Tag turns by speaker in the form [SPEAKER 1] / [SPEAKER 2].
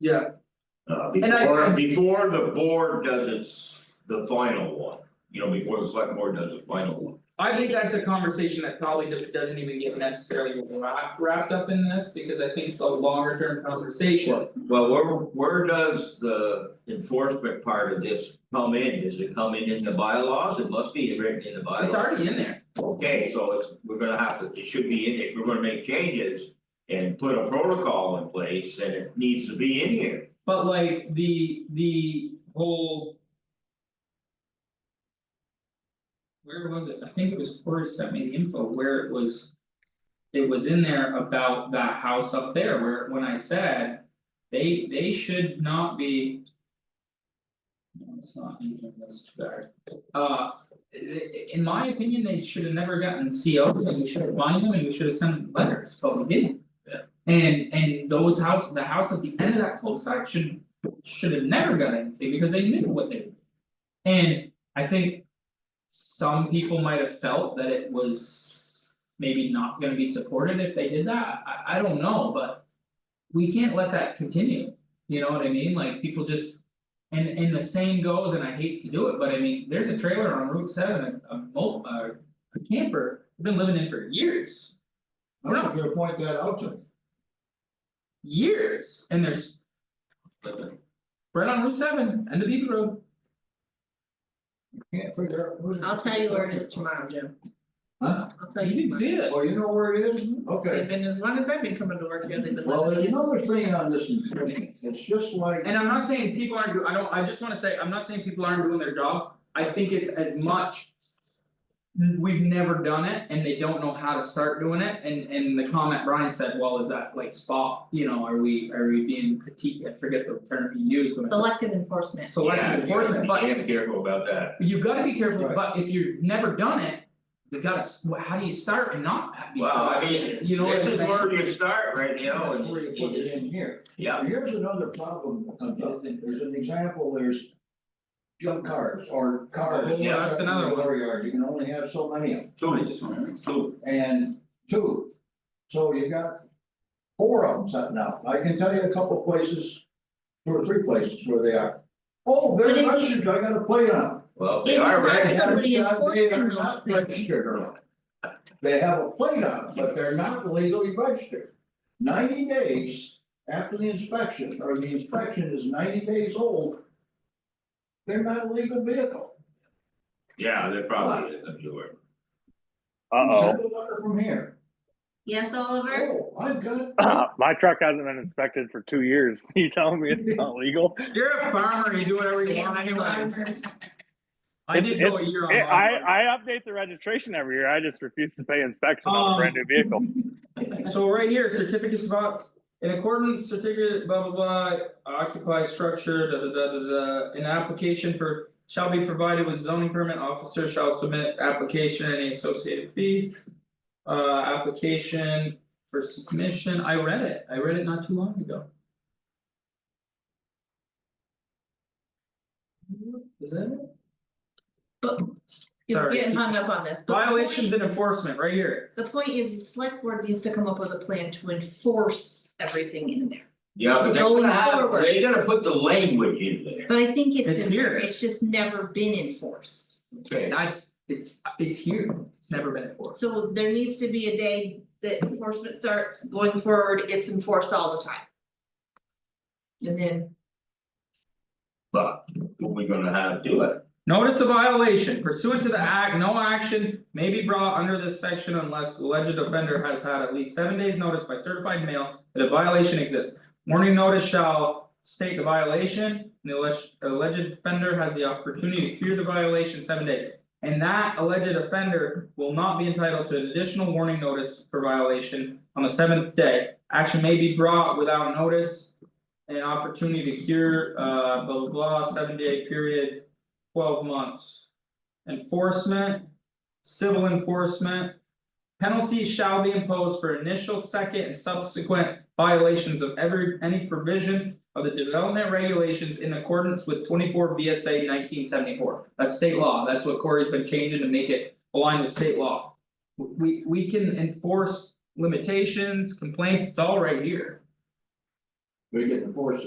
[SPEAKER 1] Yeah,
[SPEAKER 2] Uh,
[SPEAKER 1] And I-
[SPEAKER 2] before, before the board does its, the final one, you know, before the select board does the final one.
[SPEAKER 1] I think that's a conversation that probably do- doesn't even get necessarily wrapped wrapped up in this, because I think it's a longer term conversation.
[SPEAKER 2] Well, where, where does the enforcement part of this come in? Does it come in in the bylaws? It must be written in the bylaws.
[SPEAKER 1] It's already in there,
[SPEAKER 2] Okay, so it's, we're gonna have to, it should be in, if we're gonna make changes and put a protocol in place, then it needs to be in here.
[SPEAKER 1] but like the the whole. Where was it? I think it was Corey sent me the info where it was. It was in there about that house up there where when I said. They they should not be. No, it's not in here, that's too bad. Uh, i- i- in my opinion, they should have never gotten CO'd, and we should have fined them, and we should have sent them letters, but we didn't.
[SPEAKER 2] Yeah.
[SPEAKER 1] And and those house, the house at the end of that cul-de-sac should should have never got anything because they knew what they. were doing. And I think. Some people might have felt that it was maybe not gonna be supported if they did that, I I don't know, but. We can't let that continue, you know what I mean, like people just. And and the same goes, and I hate to do it, but I mean, there's a trailer on Route seven, a a mo- a a camper, I've been living in for years.
[SPEAKER 3] I don't care, point that out to me.
[SPEAKER 1] years and there's. Right on Route seven and the Beaver Road.
[SPEAKER 3] Can't figure out where.
[SPEAKER 4] I'll tell you where it is tomorrow, Jim,
[SPEAKER 3] Huh?
[SPEAKER 4] I'll tell you tomorrow.
[SPEAKER 1] see it.
[SPEAKER 3] Oh, you know where it is?
[SPEAKER 4] They've
[SPEAKER 3] Okay.
[SPEAKER 4] been, as long as I've been coming to work here, they've been
[SPEAKER 3] Well,
[SPEAKER 4] letting me
[SPEAKER 3] there's another
[SPEAKER 4] in.
[SPEAKER 3] thing on this, enforcement. it's just like,
[SPEAKER 1] And I'm not saying people aren't, do- I don't, I just wanna say, I'm not saying people aren't doing their jobs, I think it's as much. We've never done it and they don't know how to start doing it and and the comment Brian said, well, is that like spot, you know, are we, are we being critiqued, I forget the term he used, but.
[SPEAKER 4] Selective enforcement.
[SPEAKER 1] Selective enforcement, but
[SPEAKER 2] Yeah, you gotta be damn careful about that.
[SPEAKER 1] You've gotta be careful,
[SPEAKER 3] Right.
[SPEAKER 1] but if you've never done it, you gotta, s- wh- how do you start and not ha- be
[SPEAKER 2] Well, I
[SPEAKER 1] selective? you know
[SPEAKER 2] mean,
[SPEAKER 1] what I'm
[SPEAKER 2] this
[SPEAKER 1] saying?
[SPEAKER 2] is where you start right now
[SPEAKER 3] that's
[SPEAKER 2] and
[SPEAKER 3] where you put it in here.
[SPEAKER 2] yeah,
[SPEAKER 3] Here's another problem, about- there's an example, there's. Junk cars or cars.
[SPEAKER 2] Yeah,
[SPEAKER 1] that's another one.
[SPEAKER 3] Door yard, you can only have so many of them,
[SPEAKER 1] I
[SPEAKER 2] two,
[SPEAKER 1] just wanna-
[SPEAKER 2] two,
[SPEAKER 3] and two, so you got. Four of them sitting out, I can tell you a couple places, two or three places where they are. Oh,
[SPEAKER 4] But
[SPEAKER 3] they're
[SPEAKER 4] if you-
[SPEAKER 3] registered, I got a plate on. 'em.
[SPEAKER 2] well, if they
[SPEAKER 4] If you
[SPEAKER 2] are
[SPEAKER 4] find
[SPEAKER 2] registered.
[SPEAKER 4] somebody
[SPEAKER 3] Yeah,
[SPEAKER 4] enforcing
[SPEAKER 3] They are
[SPEAKER 4] those
[SPEAKER 3] not
[SPEAKER 4] things.
[SPEAKER 3] registered on it. They have a plate on, it, but they're not legally registered. Ninety days after the inspection, or the inspection is ninety days old. They're not a legal vehicle.
[SPEAKER 2] Yeah, they're probably, I'm sure.
[SPEAKER 5] Uh
[SPEAKER 3] Send a letter from here.
[SPEAKER 4] Yes, Oliver?
[SPEAKER 3] Oh, I've got,
[SPEAKER 5] oh. My truck hasn't been inspected for two years. You telling me it's not legal?
[SPEAKER 1] You're a farmer, you do whatever you
[SPEAKER 4] Yeah,
[SPEAKER 1] want anyways.
[SPEAKER 4] Oliver.
[SPEAKER 1] I
[SPEAKER 5] It's-
[SPEAKER 1] did go a
[SPEAKER 5] it's-
[SPEAKER 1] year on.
[SPEAKER 5] It-
[SPEAKER 1] lawn
[SPEAKER 5] I, I update the registration every year. I just refuse to pay inspection on a brand new vehicle.
[SPEAKER 1] So right here, certificates about, in accordance, certificate, blah, blah, blah, occupied structure, da, da, da, da, da. An application for shall be provided with zoning permit officer shall submit application and the associated fee. Uh, application for submission, I read it, I read it not too long ago. Is that it?
[SPEAKER 4] You're
[SPEAKER 1] Sorry.
[SPEAKER 4] getting hung up on this. The point-
[SPEAKER 1] Violations and enforcement, right here,
[SPEAKER 4] The point is, the select board needs to come up with a plan to enforce everything in there,
[SPEAKER 2] Yeah, but they're
[SPEAKER 4] Going
[SPEAKER 2] gonna have,
[SPEAKER 4] forward.
[SPEAKER 2] they gotta put the language in there,
[SPEAKER 4] but I think it's.
[SPEAKER 1] It's
[SPEAKER 4] in there.
[SPEAKER 1] here.
[SPEAKER 4] It's just never been enforced.
[SPEAKER 2] okay,
[SPEAKER 1] that's, it's, it's here, it's never been enforced.
[SPEAKER 4] So there needs to be a day that enforcement starts going forward, it's enforced all the time. And then
[SPEAKER 2] but what we gonna have to do it?
[SPEAKER 1] Notice of violation pursuant to the act, no action may be brought under this section unless alleged offender has had at least seven days notice by certified mail. That a violation exists, warning notice shall state the violation, and the alleged alleged offender has the opportunity to cure the violation seven days. And that alleged offender will not be entitled to an additional warning notice for violation on the seventh day. Action may be brought without notice. An opportunity to cure, uh, blah, blah, blah, seven day period twelve months. Enforcement, civil enforcement. Penalties shall be imposed for initial, second and subsequent violations of every, any provision. Of the development regulations in accordance with twenty four BSA nineteen seventy four, that's state law, that's what Corey's been changing to make it align with state law. We we can enforce limitations, complaints, it's all right here.
[SPEAKER 3] we get enforced.